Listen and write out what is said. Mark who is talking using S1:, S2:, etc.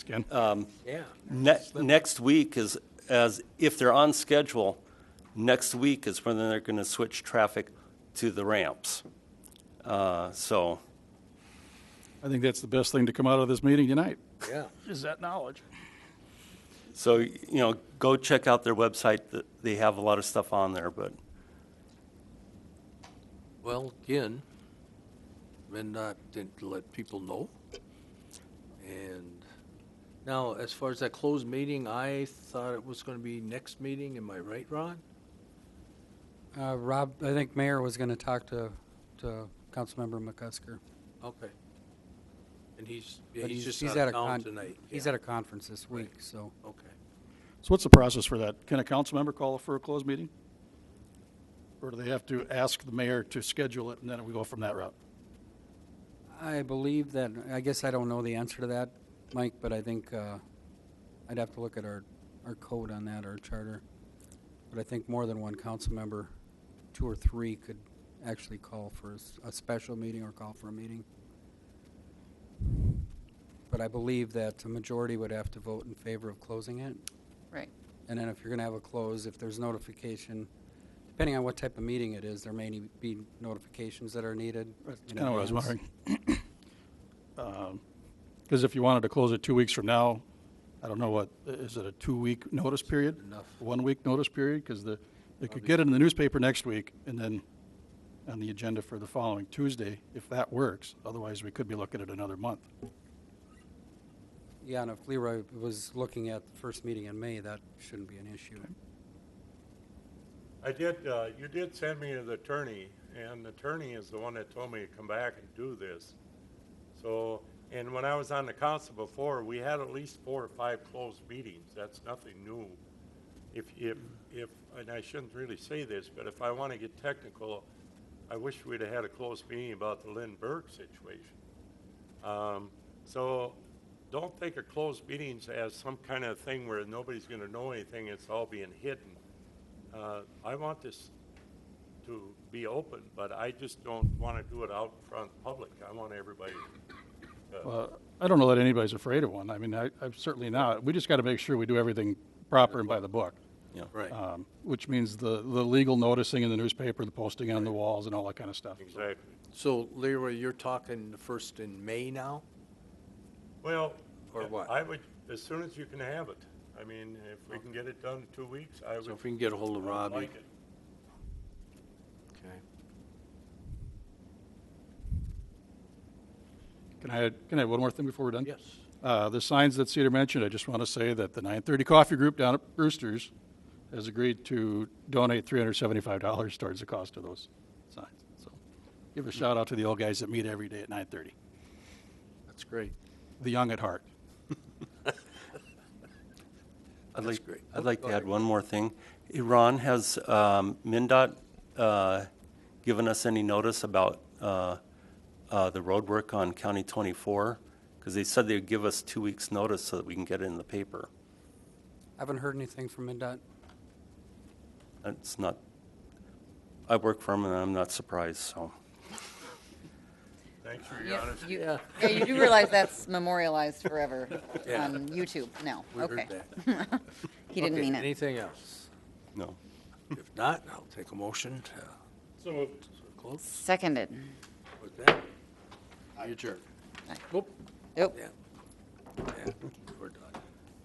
S1: Again,
S2: Yeah.
S3: Ne- Next week is, as, if they're on schedule, next week is when they're going to switch traffic to the ramps. Uh, So,
S1: I think that's the best thing to come out of this meeting tonight,
S2: Yeah.
S1: is that knowledge.
S3: so, you know, go check out their website. Th- They have a lot of stuff on there, but
S2: Well, again, MinDOT didn't let people know. And now, as far as that closed meeting, I thought it was going to be next meeting. Am I right, Ron?
S4: Uh, Rob, I think Mayor was going to talk to, to Councilmember McCusker.
S2: Okay. And he's, yeah,
S4: but
S2: he's just
S4: he's
S2: out
S4: a
S2: of town
S4: con-
S2: tonight.
S4: He's
S2: Yeah.
S4: at a conference this week, so.
S2: Okay.
S1: So what's the process for that? Can a council member call for a closed meeting? Or do they have to ask the mayor to schedule it, and then we go from that route?
S4: I believe that, I guess I don't know the answer to that, Mike, but I think, uh, I'd have to look at our, our code on that, our charter. But I think more than one council member, two or three, could actually call for a, s- a special meeting or call for a meeting. But I believe that the majority would have to vote in favor of closing it.
S5: Right.
S4: And then if you're gonna have a close, if there's notification, depending on what type of meeting it is, there may need- be notifications that are needed.
S1: That's
S4: in
S1: kind of what I was
S4: advance.
S1: wondering. Because if you wanted to close it two weeks from now, I don't know what, is it a two-week notice period?
S2: Enough.
S1: One-week notice period? Because the, they could get it in the newspaper next week and then on the agenda for the following Tuesday, if that works. Otherwise, we could be looking at another month.
S4: Yeah, and if Leroy was looking at the first meeting in May, that shouldn't be an issue.
S6: I did, uh, you did send me to the attorney, and the attorney is the one that told me to come back and do this. So, and when I was on the council before, we had at least four or five closed meetings. That's nothing new. If, if, if, and I shouldn't really say this, but if I want to get technical, I wish we'd have had a closed meeting about the Lynn Berg situation. Um, so don't think of closed meetings as some kind of thing where nobody's going to know anything, it's all being hidden. Uh, I want this to be open, but I just don't want to do it out in front public. I want everybody, uh,
S1: Uh, I don't know that anybody's afraid of one. I mean, I, I'm certainly not. We just got to make sure we do everything proper and by the book,
S2: Right.
S1: um, which means the, the legal noticing in the newspaper, the posting on the walls, and all that kind of stuff.
S6: exactly.
S2: So Leroy, you're talking the first in May now?
S6: Well,
S2: Or what?
S6: I would, as soon as you can have it. I mean, if we can get it done in two weeks, I would.
S2: So if we can get a hold of
S6: I would
S2: Robbie.
S6: like it.
S2: Okay.
S1: Can I, can I have one more thing before we're done?
S2: Yes.
S1: Uh, The signs that Cedar mentioned, I just want to say that the 9:30 Coffee Group down at Brewster's has agreed to donate $375 towards the cost of those signs. So give a shout out to the old guys that meet every day at 9:30,
S2: That's great.
S1: the young at heart.
S3: I'd
S2: That's
S3: like,
S2: great.
S3: I'd like to add one more thing. Iran has, um, MinDOT, uh, given us any notice about, uh, uh, the roadwork on County 24? Because they said they'd give us two weeks' notice so that we can get it in the paper.
S4: Haven't heard anything from MinDOT.
S3: It's not, I work for them and I'm not surprised, so.
S6: Thanks for
S5: You-
S6: your honesty.
S5: you-
S2: Yeah.
S5: Yeah, you do realize that's memorialized forever on YouTube now.
S2: We heard
S5: Okay.
S2: that.
S5: He didn't
S2: Okay,
S5: mean it.
S2: Anything else?
S3: No.
S2: If not, I'll take a motion to close
S5: Seconded.
S2: with that. Your turn.
S5: Nope.
S2: Yeah. Yeah.